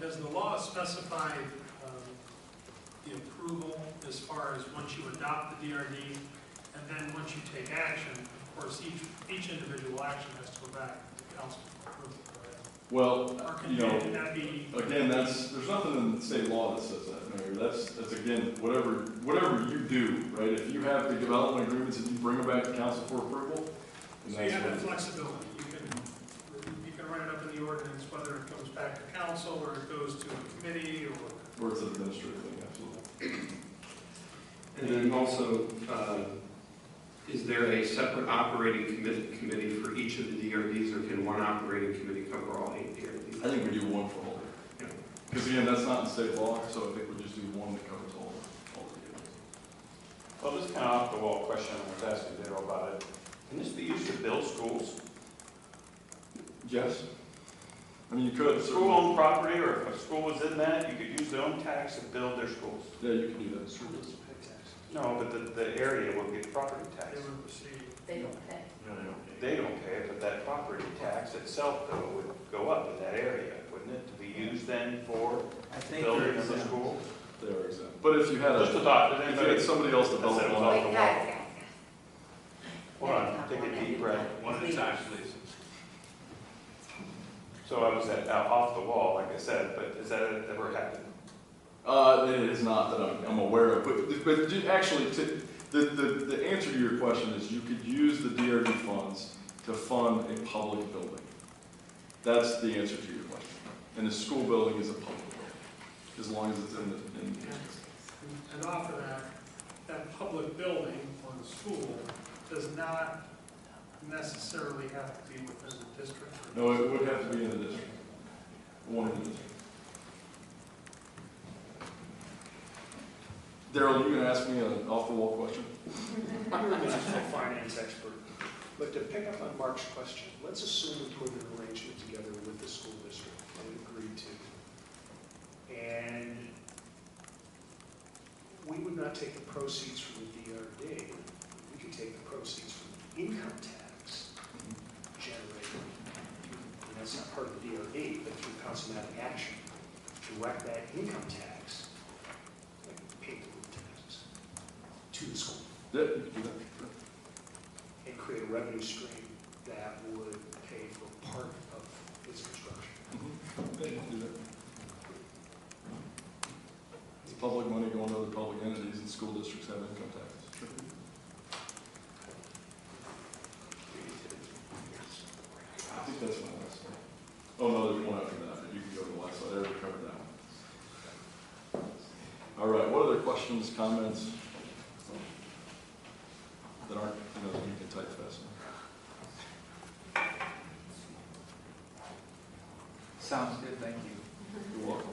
does the law specify um, the approval as far as once you adopt the DRD, and then once you take action, of course, each, each individual action has to go back to the council for approval, correct? Well, Or can you know, can that be, again, that's, there's nothing in state law that says that, Mayor. That's, that's again, whatever, whatever you do, right? If you have the development agreements and you bring them back to council for approval, and so you that's have that what. flexibility, you can, you can write it up in the ordinance, whether it comes back to council, or it goes to a committee, or, Where it's an administrative thing, absolutely. And then also, uh, is there a separate operating committee, committee for each of the DRDs, or can one operating committee cover all eight I DRDs? think we do one for all of Yeah. it. Because again, that's not in state law, so I think we just do one that covers all of, all of it. Well, this is kind of off the wall question, I was asking Daryl about it. Can this be used to build schools? Yes? I mean, you could, School certainly. owned property, or if a school was in that, you could use their own tax to build their schools. Yeah, you can do that. No, but the, the area will get property tax. they would receive. They don't pay. They don't pay it, but that property tax itself though would go up in that area, wouldn't it? To be used then for I think there building of is a a, school? They are exempt. But if you had Just a, adopt it, if you had anybody? somebody else That's develop it. one, Wait, guys, guys, Hold on, take a deep breath. One at a time, please. So I was at, out off the wall, like I said, but has that ever happened? Uh, it is not that I'm, I'm aware of, but, but ju- actually, to, the, the, the answer to your question is you could use the DRD funds to fund a public building. That's the answer to your question. And the school building is a public building, as long as it's in the, in, And- And off of that, that public building or the school does not necessarily have to be within the district. or- no, it would have to be in the district. One of the districts. Daryl, you gonna ask me an off-the-wall question? You're a municipal finance expert, but to pick up on Mark's question, let's assume we put an arrangement together with the school district and agreed to. And we would not take the proceeds from the DRD, we could take the proceeds from the income tax generated. through- And that's not part of the DRD, but through councilmatic action, direct that income tax, like pay the road taxes, to the school Yeah, you can do that. and create a revenue stream that would pay for part of its construction. It's public money going to other public entities, and school districts have income taxes. I think that's my last one. Oh, no, there's one after that, but you can go to the last slide, I already covered that one. All right, what other questions, comments? That aren't, you know, that you can type fast enough. sounds good, thank you. You're welcome.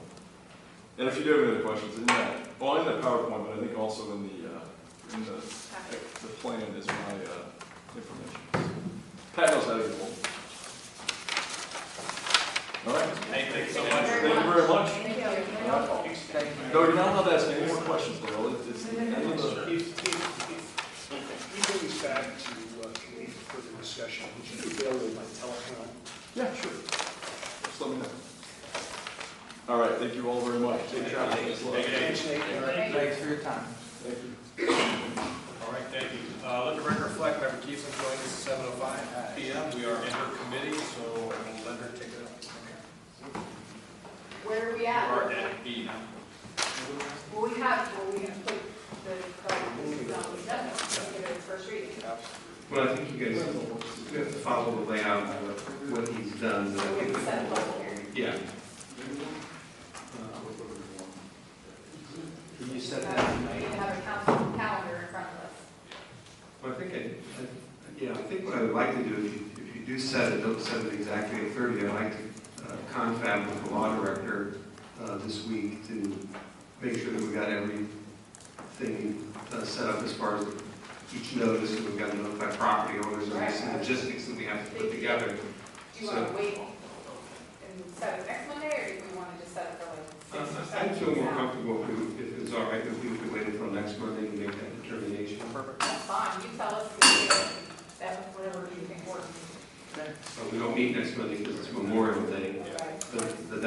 And if you do have any other questions, in that, well, in the PowerPoint, but I think also in the, uh, in the The plan is my uh, information. Pat knows how to get hold. All right. Hey, thanks so much. Thank you very much. Thank you. Thank you. No, you're not allowed to ask any more questions, Daryl. It's- It's the end of the. If, if, if you bring this back to uh, committee for further discussion, would you be available by telephone? Yeah, sure. Just let me know. All right, thank you all very much. Take care. Thanks, Nate. Thanks for your time. Thank you. All right, thank you. Uh, Let the record reflect, Member Keeson joined us at 7:05 PM. We are in her committee, so I will let her take it up. Where are we We at? are at B now. Well, we have, well, we have put the, this is on the agenda, Let's give it its first reading. Well, I think you guys, you have to follow the layout of what he's done, but I So we think. can set a public hearing. Yeah. Can you set Uh, We have a council calendar in front of us. Well, I think, I- I- yeah, I think what I would like to do, if you- if you do set it, don't set it exactly at 30, I'd like to uh, confab with the law director uh, this week to make sure that we've got everything uh, set up as far as each notice, and we've got to notify property owners, and there's some logistics that we have to put together. Do you want to wait and set it next Monday, or do we want to just set it for like six or I- seven? I'd feel weeks more out? comfortable if we- if it's all right, if we could wait until next Monday to make that determination. That's fine, you tell us, we can do it. that's whatever you think works. But we don't meet next Monday because it's Memorial Day, Okay. the the